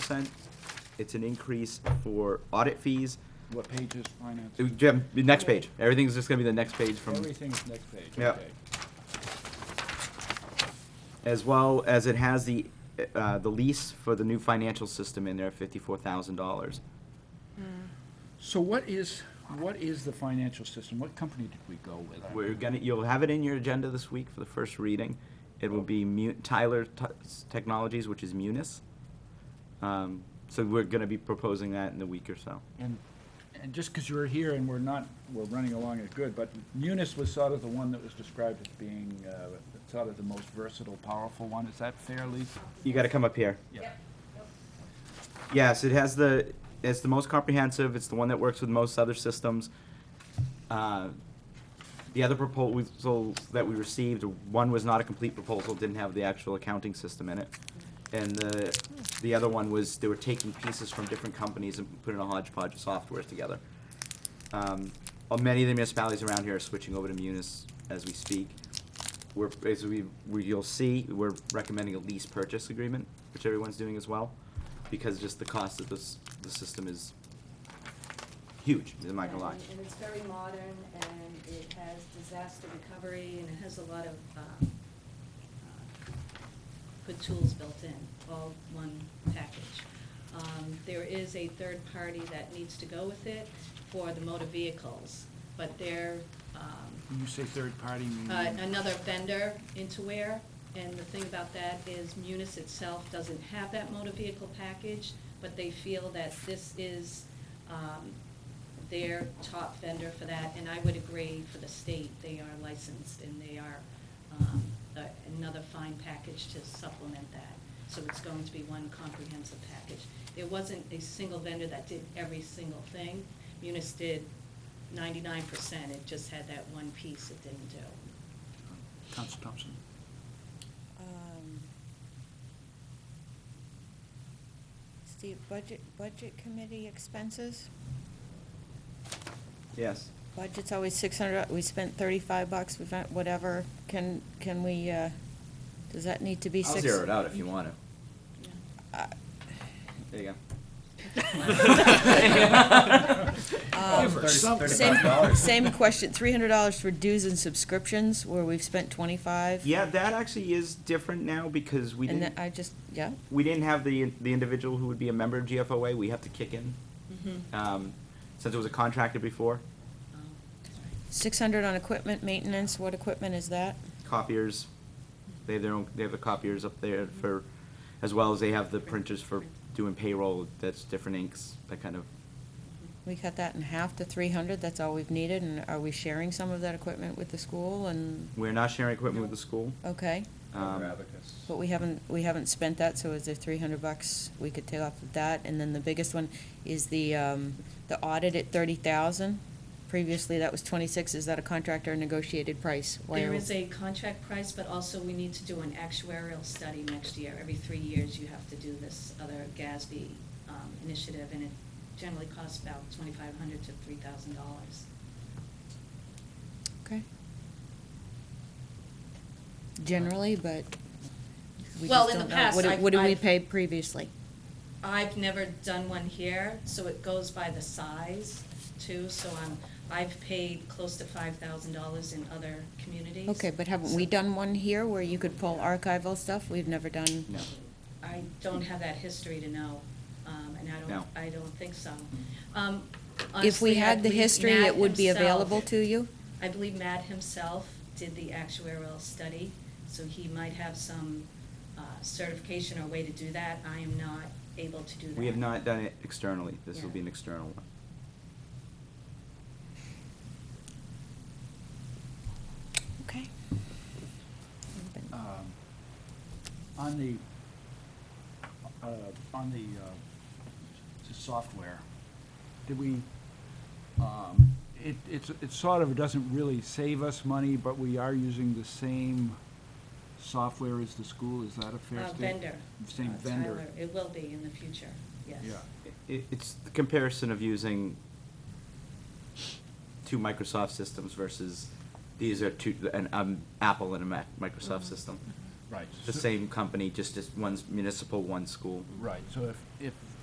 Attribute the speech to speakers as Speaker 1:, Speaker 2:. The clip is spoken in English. Speaker 1: percent. It's an increase for audit fees.
Speaker 2: What page is finance?
Speaker 1: Uh, Jim, the next page. Everything's just gonna be the next page from,
Speaker 2: Everything's next page,
Speaker 1: Yeah.
Speaker 2: okay.
Speaker 1: as well as it has the, uh, the lease for the new financial system in there, fifty-four thousand dollars.
Speaker 2: So what is, what is the financial system? What company did we go with?
Speaker 1: We're gonna, you'll have it in your agenda this week for the first reading. It will be Mu- Tyler T- Technologies, which is Munis. Um, so we're gonna be proposing that in a week or so.
Speaker 2: And, and just because you're here and we're not, we're running along as good, but Munis was sort of the one that was described as being uh, sort of the most versatile, powerful one. Is that fair, Lisa?
Speaker 1: You gotta come up here.
Speaker 2: Yeah.
Speaker 1: Yes, it has the, it's the most comprehensive, it's the one that works with most other systems. Uh, The other proposals that we received, one was not a complete proposal, didn't have the actual accounting system in it. And the, the other one was, they were taking pieces from different companies and putting a hodgepodge of softwares together. Um, uh, Many of the municipalities around here are switching over to Munis as we speak. We're, as we, we, you'll see, we're recommending a lease purchase agreement, which everyone's doing as well, because just the cost of this, the system is huge, am I gonna lie?
Speaker 3: And- And it's very modern, and it has disaster recovery, and it has a lot of um, uh, good tools built in, all one package. Um, There is a third party that needs to go with it for the motor vehicles, but they're um,
Speaker 2: When you say third party, you mean?
Speaker 3: uh, another vendor into where, and the thing about that is Munis itself doesn't have that motor vehicle package, but they feel that this is um, their top vendor for that, and I would agree for the state, they are licensed and they are um, a- another fine package to supplement that. So it's going to be one comprehensive package. There wasn't a single vendor that did every single thing. Munis did ninety-nine percent, it just had that one piece it didn't do.
Speaker 2: Council Thompson.
Speaker 4: Um, Steve, budget, budget committee expenses?
Speaker 1: Yes.
Speaker 4: Budget's always six hundred, we spent thirty-five bucks, we spent whatever, can, can we, uh, does that need to be
Speaker 1: I'll
Speaker 4: six?
Speaker 1: zero it out if you want to.
Speaker 4: Uh,
Speaker 1: There you go.
Speaker 4: Um,
Speaker 2: Give her something.
Speaker 4: Same,
Speaker 2: $35.
Speaker 4: same question, three hundred dollars for dues and subscriptions, where we've spent twenty-five?
Speaker 1: Yeah, that actually is different now because we
Speaker 4: And
Speaker 1: didn't,
Speaker 4: that, I just, yeah,
Speaker 1: we didn't have the, the individual who would be a member of GFOA, we have to kick in. Um, since it was a contractor before,
Speaker 3: Um,
Speaker 4: six hundred on equipment maintenance, what equipment is that?
Speaker 1: copiers, they have their own, they have the copiers up there for, as well as they have the printers for doing payroll, that's different inks, that kind of,
Speaker 4: We cut that in half to three hundred, that's all we've needed, and are we sharing some of that equipment with the school and,
Speaker 1: we're not sharing equipment with the school.
Speaker 4: okay?
Speaker 1: Um,
Speaker 4: But we haven't, we haven't spent that, so is there three hundred bucks we could take off of that? And then the biggest one is the, um, the audit at thirty thousand. Previously, that was twenty-six, is that a contractor negotiated price? Why
Speaker 3: There
Speaker 4: are-
Speaker 3: is a contract price, but also we need to do an actuarial study next year. Every three years, you have to do this other GASB um, initiative, and it generally costs about twenty-five hundred to three thousand dollars.
Speaker 4: Okay. Generally, but we
Speaker 3: Well,
Speaker 4: just
Speaker 3: in the
Speaker 4: don't know.
Speaker 3: past,
Speaker 4: What did-
Speaker 3: I've-
Speaker 4: What did we
Speaker 3: I've-
Speaker 4: pay previously?
Speaker 3: I've never done one here, so it goes by the size too, so I'm, I've paid close to five thousand dollars in other communities.
Speaker 4: Okay, but haven't we
Speaker 3: So
Speaker 4: done one here where you could pull archival stuff? We've never done.
Speaker 1: No.
Speaker 3: I don't have that history to know, um, and I
Speaker 1: No. Mm-hmm.
Speaker 3: don't, I don't think so. Um,
Speaker 4: If we
Speaker 3: honestly, I
Speaker 4: had the
Speaker 3: believe
Speaker 4: history,
Speaker 3: Matt
Speaker 4: it would be
Speaker 3: himself-
Speaker 4: available to you?
Speaker 3: I believe Matt himself did the actuarial study, so he might have some uh, certification or way to do that. I am not able to do that.
Speaker 1: We have not done it externally, this will
Speaker 3: Yeah.
Speaker 1: be an external one.
Speaker 4: Okay.
Speaker 2: Um, On the, uh, on the, uh, the software, did we, um, it, it's, it sort of doesn't really save us money, but we are using the same software as the school, is that a fair
Speaker 3: Uh,
Speaker 2: statement?
Speaker 3: Vendor.
Speaker 2: Same
Speaker 3: Uh,
Speaker 2: vendor,
Speaker 3: Tyler. It will be in the future, yes.
Speaker 2: yeah.
Speaker 1: It, it's the comparison of using two Microsoft systems versus these are two, an, um, Apple and a Mac, Microsoft system.
Speaker 2: Right.
Speaker 1: the same company, just, just one's municipal, one's school.
Speaker 2: Right, so if, if